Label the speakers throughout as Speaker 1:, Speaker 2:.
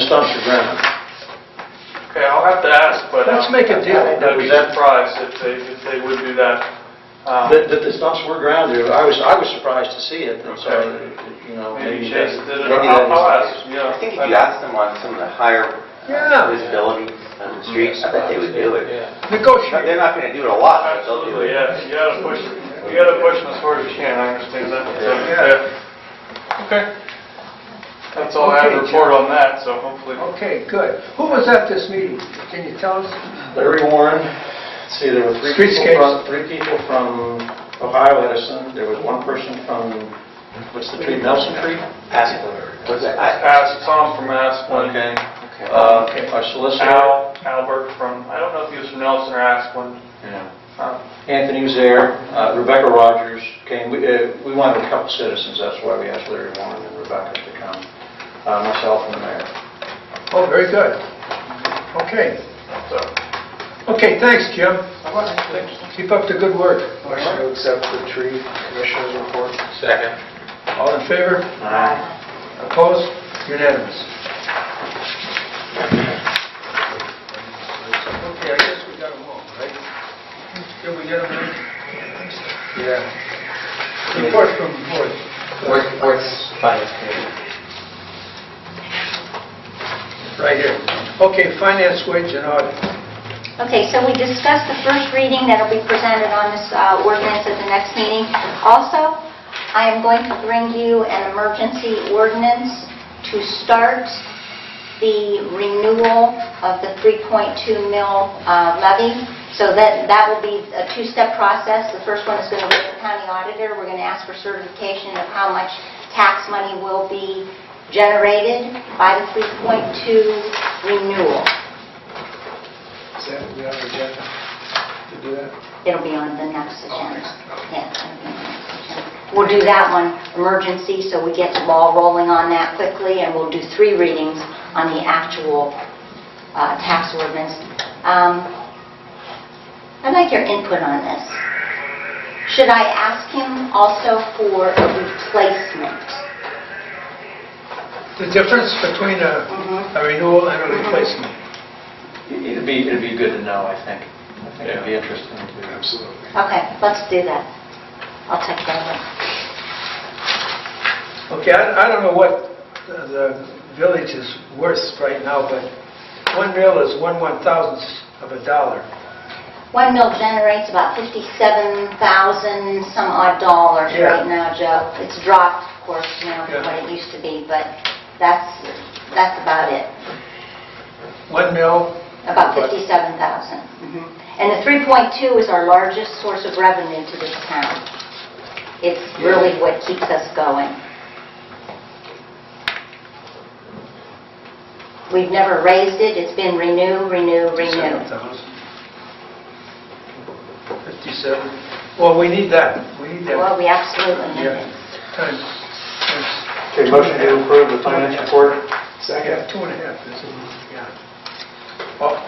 Speaker 1: Dr. Brown.
Speaker 2: Okay, I'll have to ask, but. um,
Speaker 1: Let's make a deal.
Speaker 2: I'd be surprised if they, if they would do that. Um,
Speaker 1: That, that Uh, the stumps were ground there, I was, I was surprised to see it, and so, you know,
Speaker 2: Maybe
Speaker 1: maybe
Speaker 2: Chase
Speaker 1: that-
Speaker 2: did it,
Speaker 1: maybe that
Speaker 2: I'll,
Speaker 1: is-
Speaker 2: I'll ask, yeah.
Speaker 3: I think if you asked them on some of the higher
Speaker 1: Yeah.
Speaker 3: uh, visibility on the streets, I bet they would do it.
Speaker 1: Yeah.
Speaker 3: But They're
Speaker 1: Negotiate.
Speaker 3: not gonna do it a lot, but they'll do
Speaker 2: Absolutely,
Speaker 3: it.
Speaker 2: yeah, you gotta push, you gotta push them as hard as you can, I understand that. So,
Speaker 1: Yeah.
Speaker 2: yeah. Okay. That's all I have to
Speaker 4: Okay,
Speaker 2: report on that, so hopefully.
Speaker 4: Okay, good. Who was at this meeting? Can you tell us?
Speaker 1: Larry Warren, let's see, there were three people
Speaker 4: Streetscapes.
Speaker 1: from, three people from Ohio Edison, there was one person from, what's the tree, Nelson Tree?
Speaker 3: Was it- I-
Speaker 2: Ask Tom from Asplin.
Speaker 1: Okay. Uh, Our solicitor,
Speaker 2: Al, Albert from, I don't know if he was from Nelson or Asplin. Uh,
Speaker 1: Anthony was there, uh, Rebecca Rogers came, we uh, we wanted a couple citizens, that's why we asked Larry Warren and Rebecca to come, Uh, myself and the mayor.
Speaker 4: Oh, very good. Okay.
Speaker 2: So,
Speaker 4: Okay, thanks, Jim.
Speaker 2: thank you.
Speaker 4: Keep up the good work.
Speaker 5: Motion to accept the tree commissioner's report.
Speaker 4: All in favor? Opposed? Unanimous. Okay, I guess we got them all, right? Did we get them?
Speaker 5: Yeah.
Speaker 4: Report from the board.
Speaker 5: What's finance committee?
Speaker 4: Right here. Okay, finance, wage, and audit.
Speaker 6: Okay, so we discussed the first reading that'll be presented on this uh, ordinance at the next meeting. Also, I am going to bring you an emergency ordinance to start the renewal of the 3.2 mil uh, levy. So that, that will be a two-step process. The first one is going to be the county auditor. We're going to ask for certification of how much tax money will be generated by the 3.2 renewal.
Speaker 5: Is that, we have an agenda to do that?
Speaker 6: It'll be on the next agenda. Yeah, it'll be on the next agenda. We'll do that one, emergency, so we get the ball rolling on that quickly, and we'll do three readings on the actual uh, tax ordinance. Um, I'd like your input on this. Should I ask him also for a replacement?
Speaker 4: The difference between a
Speaker 6: Mhm.
Speaker 4: a renewal and a replacement.
Speaker 1: It'd be, it'd be good to know, I think. I think it'd be interesting to...
Speaker 5: Absolutely.
Speaker 6: Okay, let's do that. I'll take that one.
Speaker 4: Okay, I I don't know what the- the village is worth right now, but one mil is one one thousandth of a dollar.
Speaker 6: One mill generates about 57,000 some odd dollars
Speaker 4: Yeah.
Speaker 6: right now, Joe. It's dropped, of course, you know,
Speaker 4: Yeah.
Speaker 6: from what it used to be, but that's, that's about it,
Speaker 4: One mil,
Speaker 6: about
Speaker 4: Right.
Speaker 6: 57,000. Mhm. And the 3.2 is our largest source of revenue to this town. It's really what keeps us going. We've never raised it, it's been renew, renew, renew.
Speaker 4: seven thousand. Fifty-seven, well, we need that, we need
Speaker 6: Well,
Speaker 4: that.
Speaker 6: we absolutely need
Speaker 4: Yeah.
Speaker 6: it.
Speaker 4: Times, times,
Speaker 1: Okay, motion to approve the finance report?
Speaker 4: yeah, two and a half, isn't it? Yeah. All-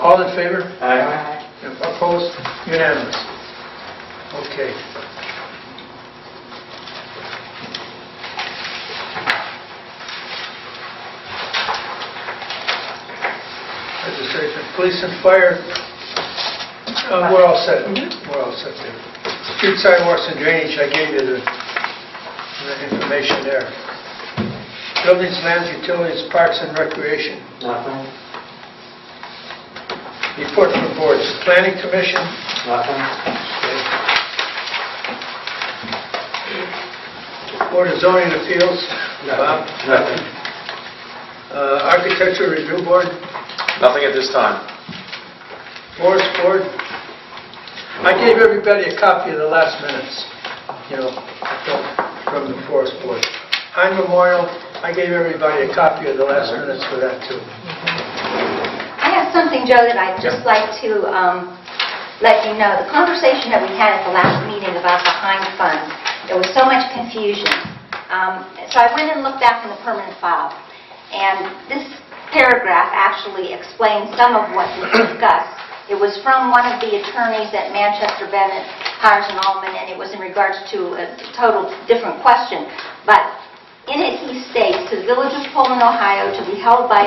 Speaker 4: All in favor?
Speaker 1: Aye.
Speaker 4: Opposed? Unanimous. Okay. Legislation, police and fire, uh, we're all set. We're all set there. Street sidewalks and drainage, I gave you the the information there. Buildings, lands, utilities, parks and recreation.
Speaker 1: Nothing?
Speaker 4: Report from boards, planning commission,
Speaker 1: Nothing?
Speaker 4: Board of Zoning Appeals, Bob.
Speaker 1: Nothing.
Speaker 4: Uh, Architecture Review Board,
Speaker 5: Nothing at this time.
Speaker 4: Forest Board. I gave everybody a copy of the last minutes, you know, from- from the Forest Board. Pine Memorial, I gave everybody a copy of the last minutes for that too.
Speaker 6: I have something, Joe, that I'd just like to um, let you know. The conversation that we had at the last meeting about the Heinz Fund, there was so much confusion. Um, So I went and looked back in the permanent file, and this paragraph actually explains some of what we discussed. It was from one of the attorneys at Manchester Bennett, Hires and Allman, and it was in regards to a total different question. But in it, he states, "To the Village of Pullman, Ohio, to be held by